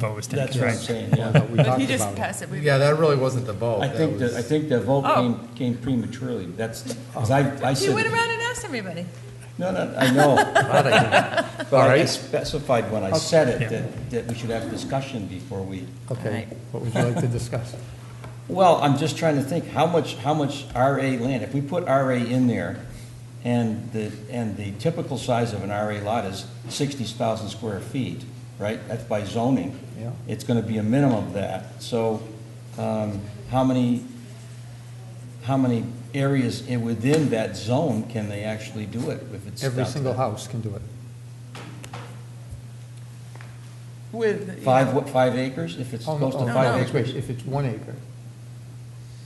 proposed. That's what I'm right? saying, yeah. We But talked he just about it. passed it. We- Yeah, that really wasn't the vote. I That think, the- I was- think the vote Oh. came, came prematurely, that's, 'cause I, I He went said, around and asked everybody. no, no, I know, but All I right. specified when I said Yeah. it, that, that we should have discussion before we, Okay, what would you like to discuss? well, I'm just trying to think, how much, how much RA land, if we put RA in there, and the, and the typical size of an RA lot is sixty thousand square feet, right? That's by zoning. Yeah. It's gonna be a minimum of that, so, um, how many how many areas i- within that zone can they actually do it if it's Every down to single that? house can do it. With. Five, what, five acres, if it's Oh, no, close to oh, five no, acres? wait, If it's one acre,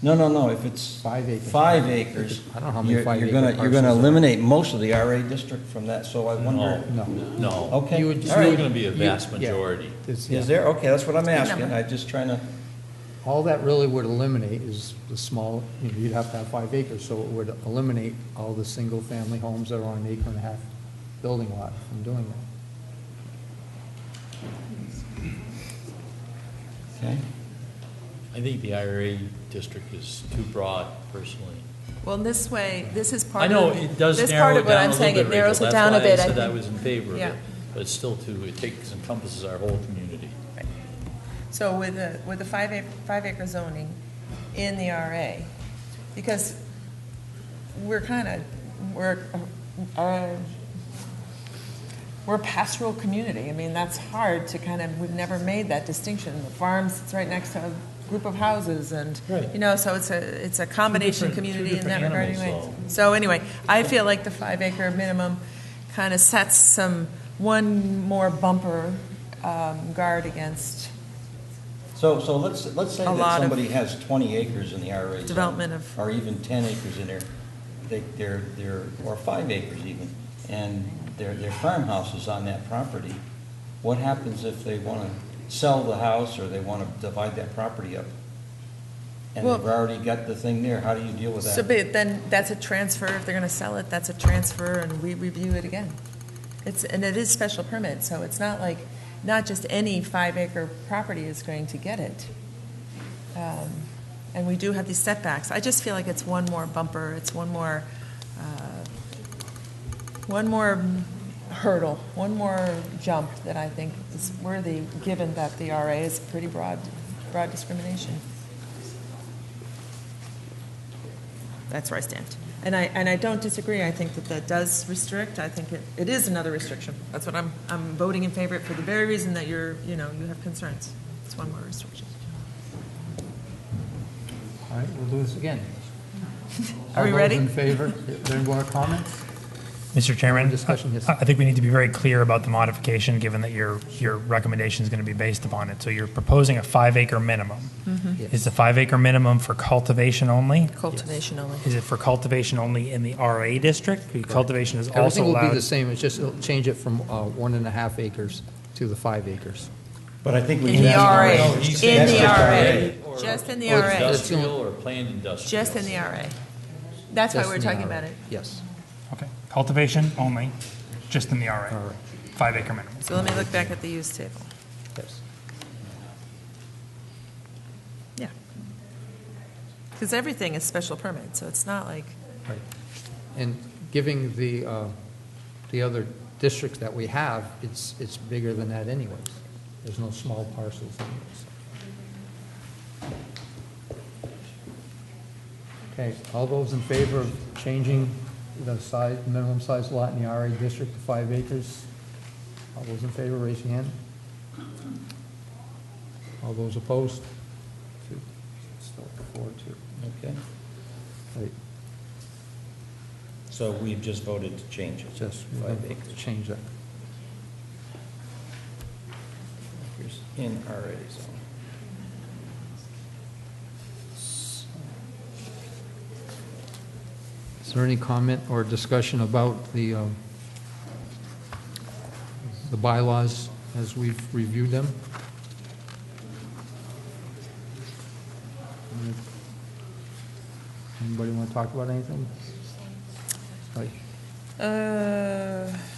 No, no, no, if it's. Five acres. Five acres. I don't know how many you're- five You're gonna, acre you're gonna parcels are. eliminate most of the RA district from that, so I wonder, no. No. Okay, You would- It's all right. still going to be a vast Yeah. majority. It's- yeah. is there, okay, that's what I'm asking, number. I'm just trying to, All that really would eliminate is the small, you know, you'd have to have five acres, so it would eliminate all the single-family homes that are on an acre and a half building lot from doing that. okay? I think the IRA district is too broad personally. Well, this way, this is part I of. know it does this part narrow of it what I'm down a little saying. bit, It Rachel. narrows That's it down a bit. why I said I think. was in favor of Yeah. it, but it's still too, it takes, encompasses our whole community. So with the, with the five acre, five acre zoning in the RA, because we're kind of, we're, uh, uh, we're a pastoral community. I mean, that's hard to kind of, we've never made that distinction. The farms, it's right next to a group of houses and, you know, so it's a, it's a combination different- two community in that different regard animals, anyway. So anyway, I feel like the five acre minimum kind of sets some, one more bumper um, guard against So, so let's, let's say A lot that of- somebody has 20 acres in the IRA zone. Development of- Or even 10 acres in there, they, they're, they're, or five acres even, and their, their farmhouse is on that property. What happens if they want to sell the house or they want to divide that property up? And Well- they've already got the thing there, how do you deal with So, that? but then, that's a transfer, if they're gonna sell it, that's a transfer, and we review it again. It's, and it is special permit, so it's not like, not just any five acre property is going to get it. Um, And we do have these setbacks, I just feel like it's one more bumper, it's one more, uh, one more hurdle, one more jump that I think is worthy, given that the RA is pretty broad, broad discrimination. That's where I stand. And I, and I don't disagree. I think that that does restrict. I think it, it is another restriction. That's what I'm, I'm voting in favor of for the very reason that you're, you know, you have concerns. It's one more restriction. All right, we'll do this again. Are we ready? All those in Mm-hmm. favor, Are there any more comments? Mr. Chairman? Discussion, yes. I I think we need to be very clear about the modification, given that your, your recommendation is going to be based upon it. So you're proposing a five acre minimum. Is the five acre minimum for cultivation only? Cultivation only. Is it for cultivation only in the RA district? Because Cultivation is also Everything will be allowed. the same, it's just, it'll change it from uh, one and a half acres to the five acres. But I think we. In the RA. No, he said In the just RA. or Just in the Or it's RA. just- Industrial or planned industrial. Just in the RA. That's why Just we're in the talking IRA. about it. Yes. Okay, cultivation only, just in the RA, RA. five acre minimum. So let me look back at the use table. Yes. Yeah. Because everything is special permit, so it's not like, Right. And giving the, uh, the other districts that we have, it's, it's bigger than that anyways. There's no small parcels anyways. Okay, all those in favor of changing the size, minimum size lot in the RA district to five acres? All those in favor, raise your hand. All those opposed? Two. Still four, two. Okay, Right. So we've just voted to change it. Just Five acres. change that. Here's in RA zone. Is there any comment or discussion about the, um, the bylaws as we've reviewed them? Anybody want to talk about anything? Like, uh,